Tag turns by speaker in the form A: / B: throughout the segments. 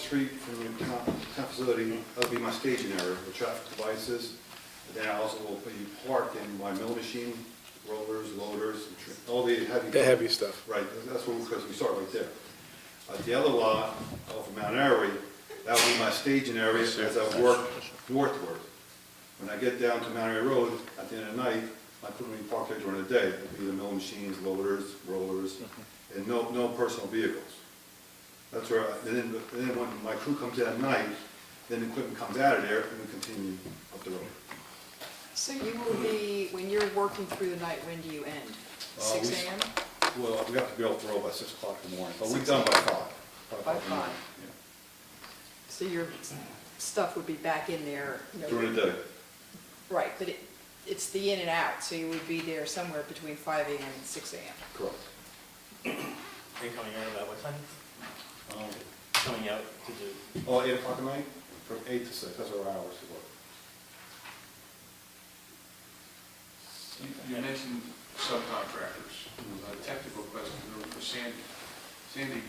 A: street from the town, town facility, that'll be my staging area for traffic devices. And Then I also will be parked in my mill machine, rollers, loaders, and tr- all the heavy.
B: The heavy stuff.
A: Right, that's what, because we start right there. Uh, The other lot off of Mount Airy, that will be my staging area as I work northward. When I get down to Mount Airy Road, at the end of the night, I put me parked there during the day, it'll be the mill machines, loaders, rollers, and no, no personal vehicles. That's where, I- and then, and then when my crew comes in at night, then the equipment comes out of there and we continue up the road.
C: So you will be, when you're working through the night, when do you end?
A: Uh,
C: Six
A: we-
C: AM?
A: Well, we have to be off the road by six o'clock in the morning, but we're done by five.
C: By
A: o'clock in the morning, yeah.
C: So your stuff would be back in there? no-
A: During the day,
C: Right, but it, it's the in and out, so you would be there somewhere between five AM and six AM.
A: correct.
D: Are you coming out about what time?
A: Um,
D: Coming out to do,
A: Oh, eight o'clock at night, from eight to six, that's our hours to work.
E: You you mentioned subcontractors. A technical question for Sandy. Sandy,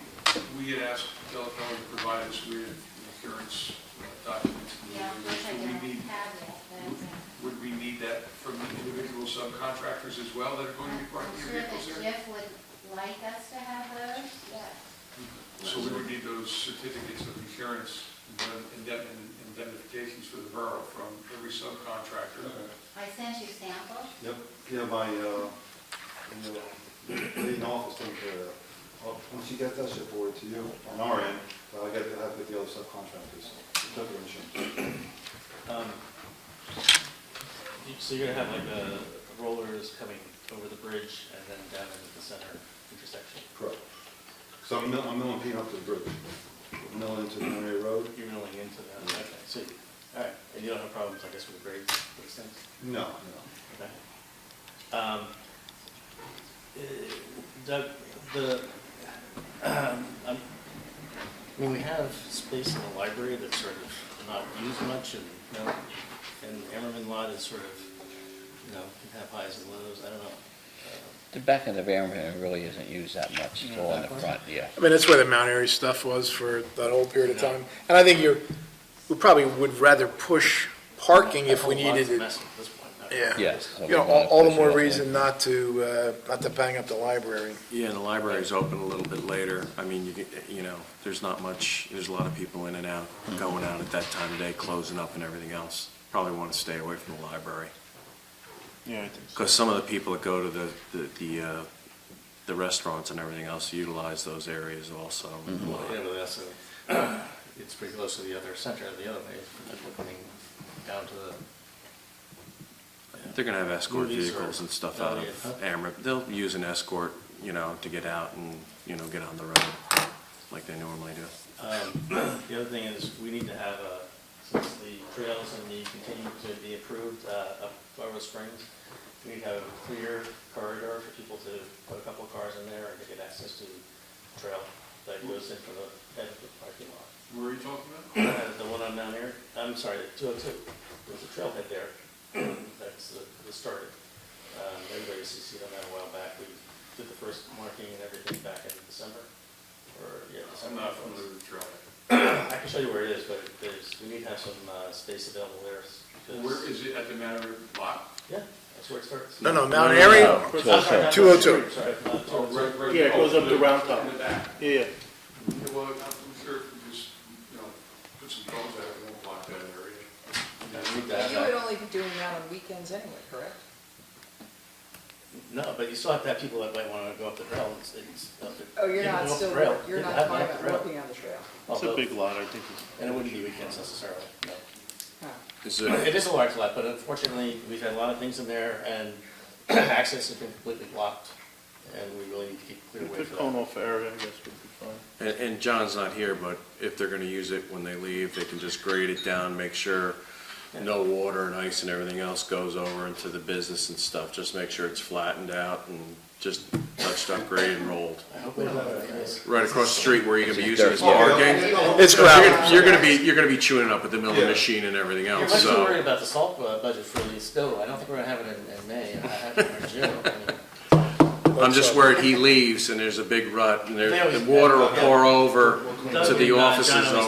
E: we had asked Delco to provide us with insurance uh, documents. and
F: Yeah, which I
E: Would we
F: don't
E: need-
F: have yet, but
E: Would we need that from the individual subcontractors as well that are
F: uh,
E: going to be
F: I'm
E: parking
F: sure
E: their
F: that
E: vehicles there?
F: Jeff would like us to have those, yes.
E: So we would need those certificates of insurance and indemn- indemnifications for the borough from every subcontractor.
F: I sent you samples.
A: Yep, yeah, my, uh, in the, in the office, take care of that. Well, Oh, Once you get that, shit forwarded to you on our end, but I gotta have with the other subcontractors, took their insurance.
D: um, you- so you're gonna have like the rollers coming over the bridge and then down into the center intersection.
A: Correct. So I'm milling, I'm milling Pete up to the bridge, milling into the Monterey Road.
D: You're milling into that, okay, so, you- all right, and you don't have problems, I guess, with the grades, those things?
A: No, no.
D: Okay. Um, eh, Doug, the, um, I'm- I mean, we have space in the library that's sort of not used much and, you know, and Ammerman lot is sort of, you know, can have highs and lows, I don't know. Uh,
G: The back end of Amherst really isn't used that much, it's all in the front, yeah.
B: I mean, that's where the Mount Airy stuff was for that whole period of time. And I think you, we probably would rather push parking if we
D: that whole lot's
B: needed
D: a
B: it.
D: mess at this point. no.
B: Yeah.
G: Yes. so
B: You
G: we
B: know, all,
G: wanna
B: all the
G: push it
B: more
G: off.
B: reason not to, uh, not to bang up the library.
H: Yeah, the library's open a little bit later. I mean, you, get- you know, there's not much, there's a lot of people in and out, going out at that time of day, closing up and everything else. Probably want to stay away from the library.
B: Yeah,
H: Because some of the people that go to the, the, the, uh, the restaurants and everything else utilize those areas also.
D: Well, yeah, but that's, a- it's pretty close to the other center, the other way, like coming down to the
H: They're gonna have escort
D: Movies or-
H: vehicles and stuff
D: Oh,
H: out
D: yeah.
H: of Amherst. They'll use an escort, you know, to get out and, you know, get on the road like they normally do.
D: Um, The other thing is, we need to have, uh, since the trails and the continue to be approved uh, up Florida Springs, we need to have a clear corridor for people to put a couple of cars in there and to get access to the trail that goes in from the head of the parking lot.
E: Where are you talking about?
D: Uh, The one on Mount Airy, I'm sorry, the 202, there's a trailhead there, that's the- the start. Um, Everybody CC'd on that a while back, we did the first marking and everything back in December, or, yeah,
E: I'm
D: December.
E: not familiar with the trail.
D: I can show you where it is, but there's, we need to have some uh, space available there. s- because-
E: Where is it at the Mount lot?
D: Yeah, that's where it starts.
B: No, oh no, Mount Airy,
G: No,
D: I'm
G: it's
D: sorry,
G: also-
D: not
B: 202.
D: 202, Sorry, not
E: Oh,
D: 202.
E: right, right.
I: Yeah, it goes up to
E: Oh,
I: Round Top.
E: In the back.
I: Yeah,
E: Yeah, Well, I'm sure if we just, you know, put some cones out, it won't block that area.
D: I need
C: But
D: that,
C: You would
D: uh,
C: only be doing that on weekends anyway, correct?
D: No, but you still have to have people that might want to go up the trail. It's- it's up to-
C: Oh, you're
D: you can go
C: not
D: up the
C: still,
D: trail.
C: you're
D: You
C: not
D: have to
C: talking
D: have
C: about
D: the trail.
C: working on the trail.
I: it's a
D: Although-
I: big lot, I think it's
D: And it wouldn't be weekends necessarily, no.
C: Huh.
H: Is it,
D: It is a large lot, but unfortunately, we've had a lot of things in there and access has been completely blocked. And we really need to keep clear way
I: The
D: for
I: cone
D: that.
I: off area, I guess, would be fine.
H: And, and John's not here, but if they're gonna use it when they leave, they can just grade it down, make sure no water and ice and everything else goes over into the business and stuff. Just make sure it's flattened out and just touched up, graded and rolled.
D: I hope we don't have any ice.
H: Right across the street where you're gonna be using it as
G: Yeah.
A: Oh,
H: parking.
B: It's
H: You're
B: gravel.
H: gonna- You're gonna be, you're gonna be chewing up at the milling
A: Yeah.
H: machine and everything
D: You're
H: else,
D: much too worried
H: so.
D: about the salt uh, budget for the stove. I don't think we're gonna have it in, in May, and I have it in June. I mean,
H: I'm just worried he leaves and there's a big rut and
D: They
H: there,
D: always-
H: the water will pour over
D: Doug
H: to the
D: and, uh, John
H: offices
D: always
H: over.